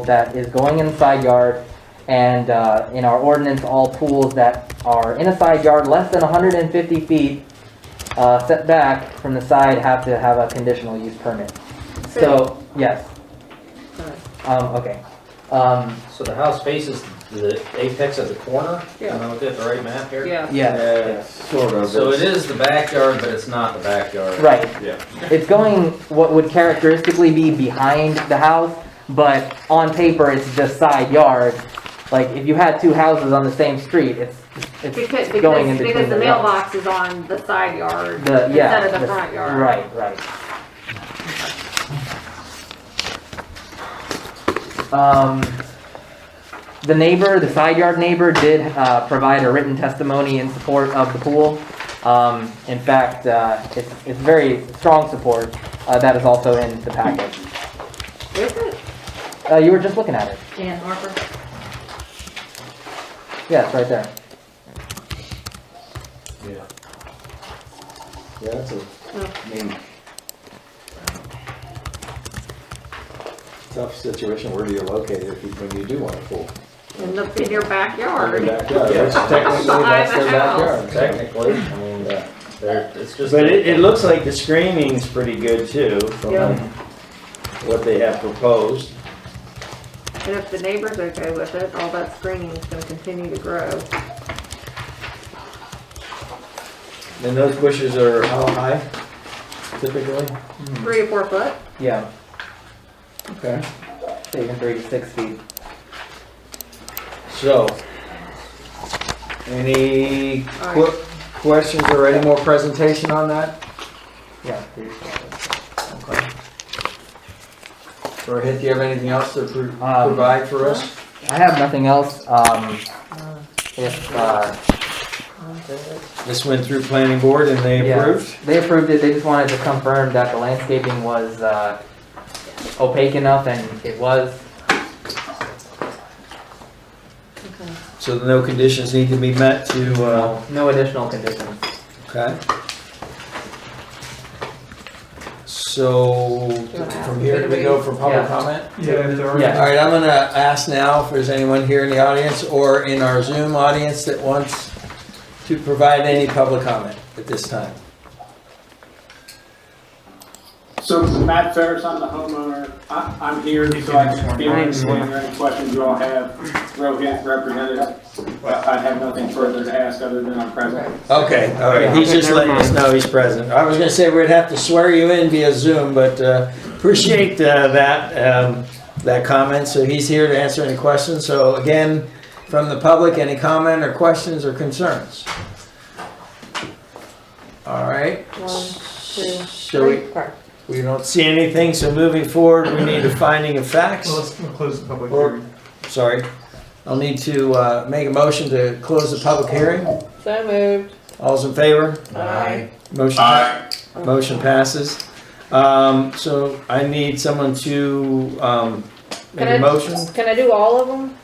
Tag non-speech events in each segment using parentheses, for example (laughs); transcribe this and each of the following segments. that is going in the side yard. And uh, in our ordinance, all pools that are in a side yard less than 150 feet uh, setback from the side have to have a conditional use permit. So, yes. Alright. Um, okay. Um, So the house faces the apex of the corner? Yeah. Am I looking at the right map here? Yeah, yes, Sort of. So it it's- is the backyard, but it's not the backyard. right. Yeah. It's going what would characteristically be behind the house, but on paper, it's just side yard. Like, if you had two houses on the same street, it's, it's, because, Going in between because, because the the rows. mailbox is on the side yard The- yeah, instead of the- the front yard. right, right. Um, the neighbor, the side yard neighbor did, uh, provide a written testimony in support of the pool. Um, in fact, uh, it's, it's very strong support, uh, that is also in the package. Is it? Uh, you were just looking at it. Dan Harper. Yeah, it's right there. Yeah. Yeah, that's a, No. I mean. Tough situation where you're located if you, when you do want a pool. In the, in your Or backyard. your backyard, Yeah. which technically that's their Behind the backyard. Technically, I mean, Yeah. there, it's just. But it, it looks like the screening's pretty good too, Yeah. from what they have proposed. And if the neighbor's okay with it, all that screening is gonna continue to grow. And those bushes are How high typically? Three or four foot? Yeah, Okay. saving three to six feet. so. Any All qu- questions or any more presentation on that? Yeah. three to six. Rohit, do you have anything else to pro- Um, provide for us? I have nothing else. Um, if uh, This went through planning board and they Yeah. approved? they approved it, they just wanted to confirm that the landscaping was uh, opaque enough, and it was. So no conditions need to be met to, uh, No, no additional conditions. okay. So from here, do we go for public Yeah. comment? Yeah, if there are. Yeah. All right, I'm gonna ask now if there's anyone here in the audience or in our Zoom audience that wants to provide any public comment at this time. So Matt Ferris, I'm the homeowner. I, I'm here so I can be answer any questions you all have. Rohit represented. Well, I have nothing further to ask other than I'm present. Okay, all right, he's just letting us know he's present. I was gonna say we'd have to swear you in via Zoom, but uh, appreciate uh, that, um, that comment. So he's here to answer any questions. So again, from the public, any comment or questions or concerns? All right. One, two, So we, Four. we don't see anything, so moving forward, we need a finding of facts. Well, let's we'll close the public Or- hearing. Sorry. I'll need to uh, make a motion to close the public hearing. So moved. All's in favor? Aye. Motion, Uh, motion passes. Um, so I need someone to, um, make a Can I- motion. Can I do all of them?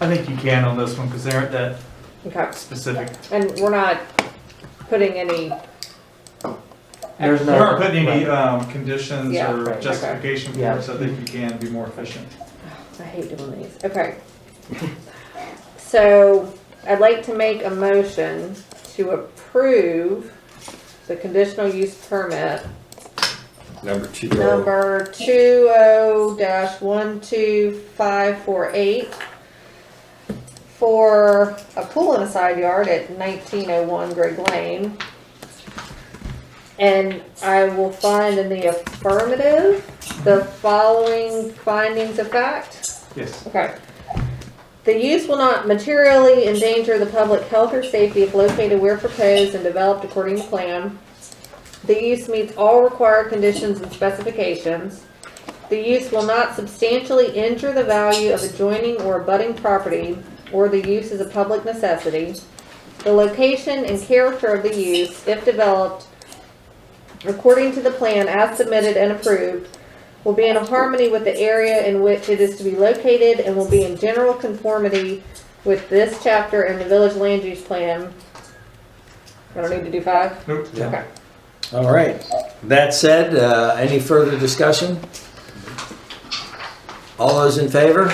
I think you can on this one, because they aren't that Okay, specific. and we're not putting any, There's We no. aren't putting any, um, conditions Yeah, or right, justification for Yeah. it, so I think you can be more efficient. I hate doing these, okay. (laughs) So I'd like to make a motion to approve the conditional use permit Number two. number two oh dash one two five four eight for a pool in a side yard at nineteen oh one Greg Lane. And I will find in the affirmative the following findings of fact. Yes. Okay. The use will not materially endanger the public health or safety if located where proposed and developed according to plan. The use meets all required conditions and specifications. The use will not substantially injure the value of adjoining or abutting property, or the use is a public necessity. The location and character of the use, if developed according to the plan as submitted and approved, will be in harmony with the area in which it is to be located and will be in general conformity with this chapter and the village land use plan. I don't need to do five? Nope. Okay. All right. That said, uh, any further discussion? All those in favor?